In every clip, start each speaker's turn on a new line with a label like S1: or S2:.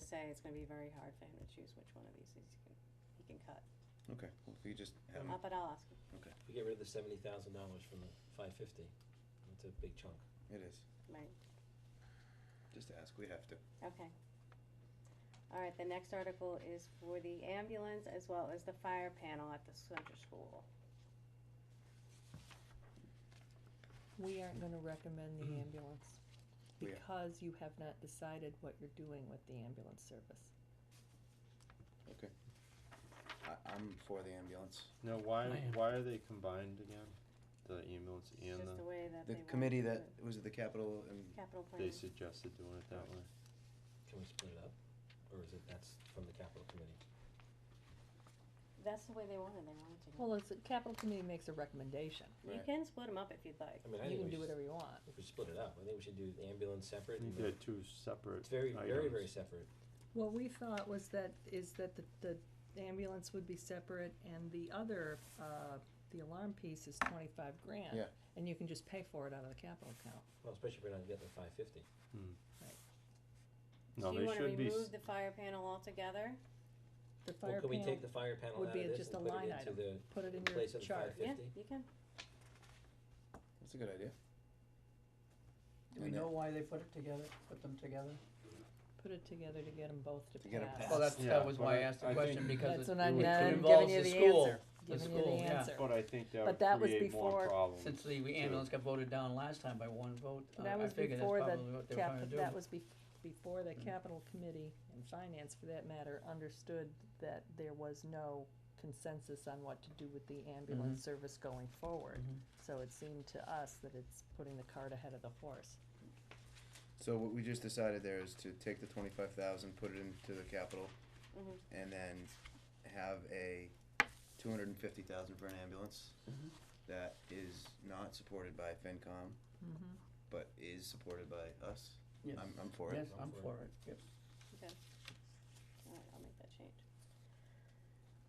S1: say it's gonna be very hard for him to choose which one of these he's gonna, he can cut.
S2: Okay, well, if you just have,
S1: Uh, But I'll ask him.
S3: If we get rid of the seventy thousand dollars from the five fifty, it's a big chunk.
S2: it is,
S1: Right,
S2: just ask, we have to.
S1: okay. All right, the next article is for the ambulance as well as the fire panel at the center school.
S4: We aren't gonna recommend the ambulance
S2: We are.
S4: because you have not decided what you're doing with the ambulance service.
S2: I, I'm for the ambulance.
S5: No, why, why are they combined again? The ambulance
S1: It's
S5: and
S1: just the
S5: the,
S1: way that
S2: The
S1: they want
S2: committee
S1: to do
S2: that
S1: it.
S2: was the capital and
S1: Capital plan.
S5: they suggested doing it that way.
S3: Can we split it up? Or is it, that's from the capital committee?
S1: That's the way they wanted, they wanted to. do it.
S4: Well, it's, the capital committee makes a recommendation.
S1: You
S2: Right.
S1: can split them up if you'd like.
S3: I mean, I
S4: You
S3: think
S4: can
S3: we
S4: do
S3: should,
S4: whatever you want.
S3: if we split it up, I think we should do the ambulance separate and
S5: They're
S3: the,
S5: two separate
S3: it's very, very, very
S5: items.
S3: separate.
S4: What we thought was that, is that the, the ambulance would be separate and the other, uh, the alarm piece is twenty-five grand.
S2: Yeah.
S4: And you can just pay for it out of the capital account.
S3: Well, especially if we're not getting the five fifty.
S5: No,
S1: Do you
S5: they
S1: wanna
S5: should be,
S1: remove
S5: s-
S1: the fire panel altogether?
S4: The fire
S3: Well, could we take the
S4: panel,
S3: fire panel
S4: would
S3: out
S4: be
S3: of this
S4: just a
S3: and put
S4: line
S3: it into
S4: item.
S3: the,
S4: put it in
S3: place of the
S4: your
S3: fire.
S4: chart.
S1: Yeah,
S3: 50?
S1: you can.
S2: that's a good idea.
S6: Do we
S2: And then-
S6: know why they put it together, put them together?
S4: Put it together to get them both to
S2: To get 'em
S4: pass.
S2: passed.
S6: Well, that's,
S5: Yeah,
S6: that was
S5: but
S6: why I
S5: I-
S6: asked
S5: I
S6: the question,
S5: think-
S6: because
S4: That's
S6: it,
S4: what I'm,
S5: would-
S4: now
S5: it
S4: I'm giving
S6: involves
S4: you
S6: the
S4: the
S6: school,
S4: answer,
S6: the
S4: giving you the
S6: school, yeah.
S4: answer.
S5: but I think that
S4: But that
S5: would
S4: was
S5: create more
S4: before-
S5: problems.
S6: since the
S5: too.
S6: ambulance got voted down last time by one vote, uh,
S4: That
S6: I
S4: was
S6: figured that's
S4: before the
S6: probably what they were
S4: cap,
S6: trying to do.
S4: that was be, before the capital committee and finance for that matter understood that there was no consensus on what to do with the ambulance
S6: Mm-hmm.
S4: service going forward.
S6: Mhm.
S4: So it seemed to us that it's putting the cart ahead of the horse.
S2: So what we just decided there is to take the twenty-five thousand, put it into the capital,
S1: Mhm.
S2: and then have a two hundred and fifty thousand for an ambulance
S6: Mhm.
S2: that is not supported by FinCom,
S4: Mm-hmm.
S2: but is supported by us.
S6: Yes.
S2: I'm, I'm for it.
S6: Yes, I'm for it, yes.
S1: All right, I'll make that change.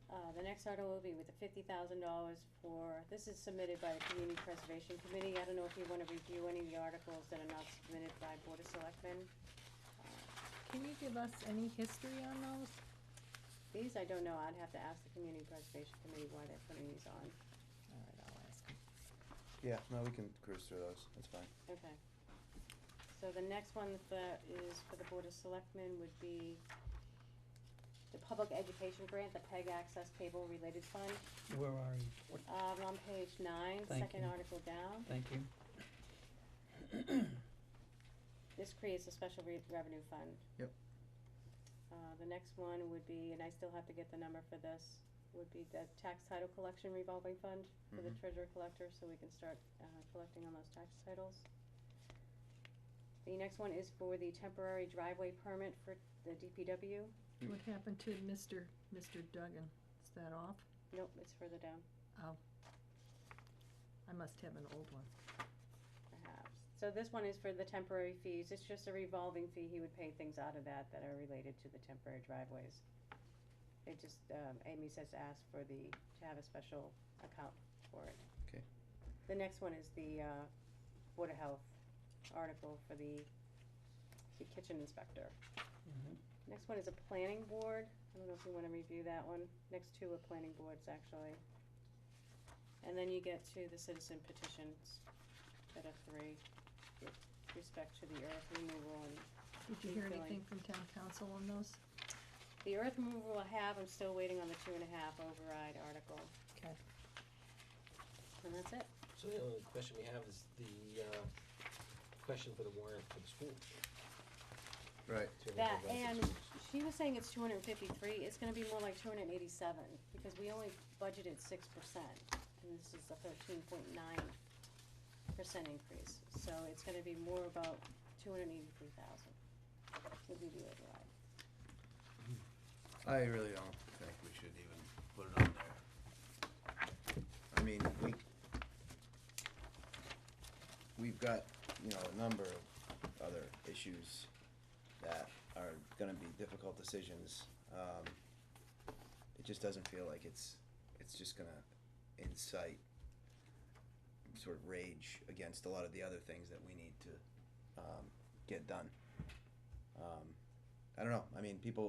S1: Uh, the next article will be with the fifty thousand dollars for, this is submitted by the Community Preservation Committee, I don't know if you wanna review any of the articles that are not submitted by Board of Selectmen. Uh,
S4: Can you give us any history on those?
S1: These, I don't know, I'd have to ask the Community Preservation Committee why they're putting these on,
S4: All right, I'll ask 'em.
S2: Yeah, no, we can cruise through those, that's fine.
S1: okay. So the next one that is for the Board of Selectmen would be the Public Education Grant, the PEG Access Cable Related Fund,
S6: Where are you? What-
S1: um, on page nine,
S6: Thank
S1: second
S6: you.
S1: article down.
S6: Thank you.
S1: This creates a special re- revenue fund.
S2: Yep.
S1: Uh, the next one would be, and I still have to get the number for this, would be the tax title collection revolving fund for the
S2: Mhm.
S1: treasurer collector, so we can start, uh, collecting on those tax titles. The next one is for the temporary driveway permit for the DPW.
S2: Mm.
S4: What happened to Mr. Mr. Duggan? Is that off?
S1: Nope, it's further down,
S4: I must have an old one.
S1: perhaps. So this one is for the temporary fees. It's just a revolving fee. He would pay things out of that that are related to the temporary driveways. It just, um, Amy says to ask for the, to have a special account for it.
S2: Okay.
S1: The next one is the, uh, Board of Health article for the the kitchen inspector.
S6: Mhm.
S1: Next one is a planning board. I don't know if you wanna review that one. Next two are planning boards, actually. And then you get to the citizen petitions that are three with respect to the earth removal and
S4: Did you
S1: Keep
S4: hear
S1: going.
S4: anything from town council on those?
S1: the earth removal I have, I'm still waiting on the two and a half override article.
S4: 'Kay.
S1: And that's it.
S3: So the only question we have is the, uh, question for the warrant for the school.
S2: Mm-hmm. Right.
S3: to enable
S1: That,
S3: us to
S1: and
S3: choose.
S1: she was saying it's two hundred and fifty-three, it's gonna be more like two hundred and eighty-seven, because we only budgeted six percent, and this is a thirteen point nine percent increase, so it's gonna be more about two hundred and eighty-three thousand, would be the override.
S2: I really don't think we should even put it on there. I mean, we, we've got, you know, a number of other issues that are gonna be difficult decisions. Um, it just doesn't feel like it's, it's just gonna incite sort of rage against a lot of the other things that we need to, um, get done. Um, I don't know, I mean, people